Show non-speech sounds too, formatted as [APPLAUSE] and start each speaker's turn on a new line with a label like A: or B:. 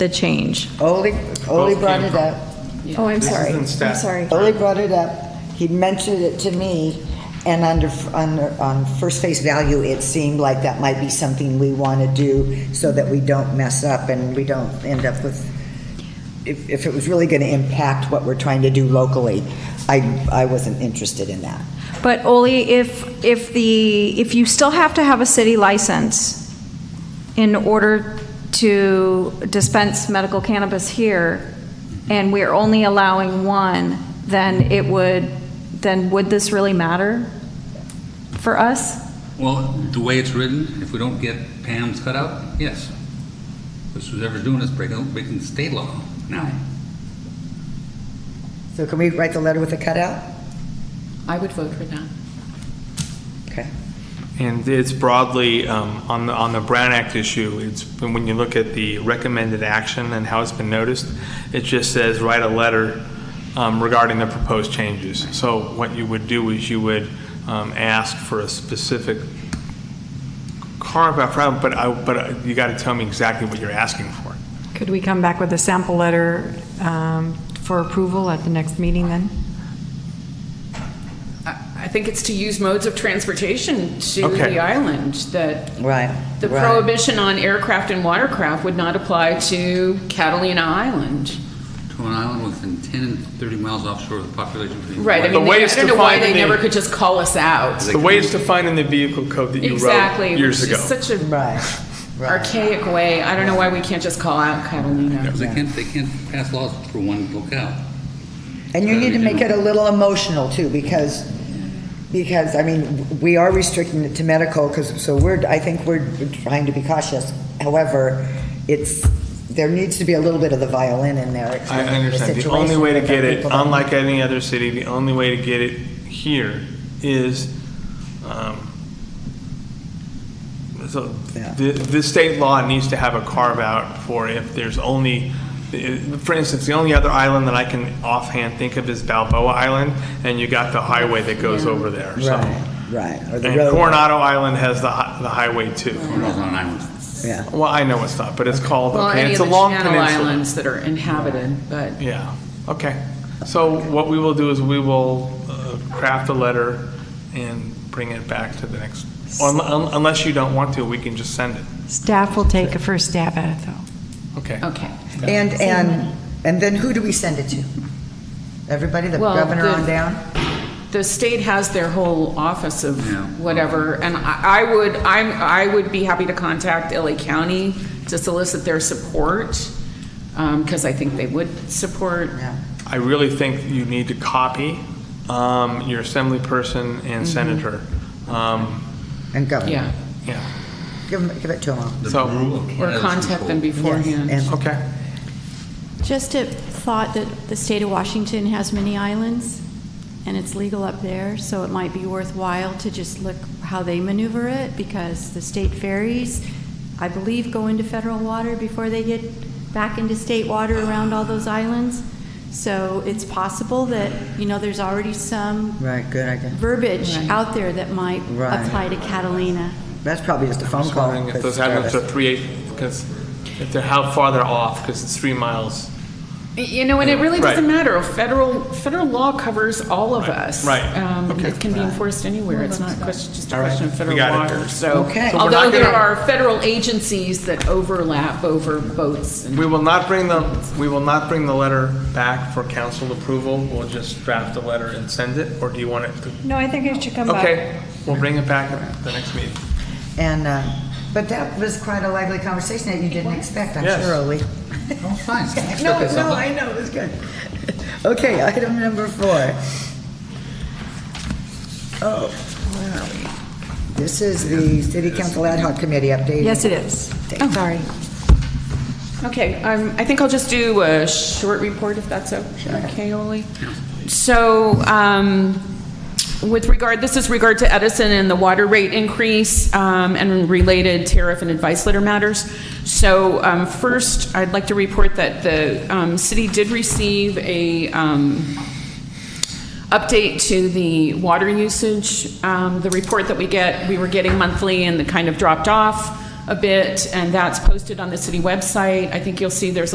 A: the change.
B: Ole, Ole brought it up.
A: Oh, I'm
C: This is
A: sorry.
C: in
A: I'm
C: staff.
A: sorry.
B: Ole brought it up, he mentioned it to me, and under, under, on first face value, it seemed like that might be something we want to do so that we don't mess up and we don't end up with, if, if it was really going to impact what we're trying to do locally, I, I wasn't interested in that.
A: But Oli, if, if the, if you still have to have a city license in order to dispense medical cannabis here, and we're only allowing one, then it would, then would this really matter for us?
D: Well, the way it's written, if we don't get Pam's cutout, yes. Because whoever's doing this breaking, breaking the state law now.
B: So can we write the letter with a cutout?
E: I would vote for that.
B: Okay.
C: And it's broadly, um, on the, on the Brown Act issue, it's, when you look at the recommended action and how it's been noticed, it just says, write a letter um, regarding the proposed changes. So what you would do is you would um, ask for a specific carve-out, problem, but I, but you got to tell me exactly what you're asking for.
F: Could we come back with a sample letter um, for approval at the next meeting then?
E: I I think it's to use modes of transportation to
C: Okay.
E: the island, that
B: Right.
E: the
B: right.
E: prohibition on aircraft and watercraft would not apply to Catalina Island.
D: To an island within 10 and 30 miles offshore of the population. between-
E: Right, I
C: The
E: mean,
C: way
E: they- I
C: it's
E: don't know why
C: defined in
E: they
C: the-
E: never could just call us out.
C: The way it's defined in the vehicle code that you wrote
E: Exactly,
C: years
E: which
C: ago.
E: is such a
B: Right, right.
E: archaic way, I don't know why we can't just call out Catalina.
D: Because they can't, they can't pass laws for one locale.
B: And you need to make it a little emotional too, because, because, I mean, we are restricting it to medical, because, so we're, I think we're trying to be cautious. However, it's, there needs to be a little bit of the violin in there.
C: I understand. The only way to get it, unlike any other city, the only way to get it here is, um, so
B: Yeah.
C: the, the state law needs to have a carve out for if there's only, for instance, the only other island that I can offhand think of is Balboa Island, and you got the highway that goes over there, so.
B: Right, right. Or the
C: And
B: road,
C: Coronado Island has the, hi- the highway too.
D: Cornell's on an island.
B: yeah.
C: Well, I know it's not, but it's called,
E: Well,
C: okay,
E: any
C: it's
E: of
C: a
E: the
C: long
E: Channel
C: peninsula.
E: Islands that are inhabited, but
C: Yeah, okay. So what we will do is we will uh, craft a letter and bring it back to the next, un- un- unless you don't want to, we can just send it.
F: Staff will take a first stab at it, though.
C: Okay.
E: Okay.
B: And, and, and then who do we send it to? Everybody, the
E: Well,
B: governor
E: the-
B: on down?
E: The state has their whole office of
D: Yeah.
E: whatever, and I I would, I'm, I would be happy to contact LA County to solicit their support, because I think they would support.
B: Yeah.
C: I really think you need to copy um, your assembly person and senator. Um,
B: And governor.
E: Yeah,
C: Yeah,
B: Give 'em- give it to them all.
C: So-
E: or contact them beforehand.
B: And
C: okay.
G: Just a thought that the state of Washington has many islands, and it's legal up there, so it might be worthwhile to just look how they maneuver it, because the state ferries, I believe, go into federal water before they get back into state water around all those islands. So it's possible that, you know, there's already some
B: Right, good idea.
G: verbiage
E: Right.
G: out there that might
B: Right.
G: apply to Catalina.
B: That's probably just a
C: I'm
B: phone
C: just
B: call.
C: wondering if
B: 'cause
C: those islands are
B: Travis-
C: three, because if they're, how far they're off, because it's three miles.
E: You know, and it really doesn't
C: Right.
E: matter, federal, federal law covers all of
C: Right,
E: us.
C: right.
E: Um,
C: Okay.
E: It can be enforced anywhere, it's not a question, just a
C: All right,
E: question of
C: we
E: federal
C: got it.
E: water, so.
B: Okay. So
C: we're not
E: Although there
C: gonna-
E: are federal agencies that overlap over boats and
C: We will not bring the, we will not bring the letter back for council approval. We'll just draft a letter and send it, or do you want it to?
A: No, I think it should come
C: Okay, we'll bring it back at the next meeting.
B: And, uh, but that was quite a lively conversation that you didn't expect, I'm
C: Yes.
B: sure, Ole.
D: Oh, fine.
B: No, no, I know, it's good. [LAUGHS] Okay, item number four. Oh, where are we? This is the City Council Ad Hoc Committee update.
F: Yes, it is.
B: Oh.
F: Sorry.
E: Okay, um, I think I'll just do a short report if that's o- okay, Ole. So, um, with regard, this is regard to Edison and the water rate increase, um, and related tariff and advice letter matters. So, um, first, I'd like to report that the, um, city did receive a, um, update to the water usage, um, the report that we get, we were getting monthly and it kind of dropped off a bit, and that's posted on the city website. I think you'll see there's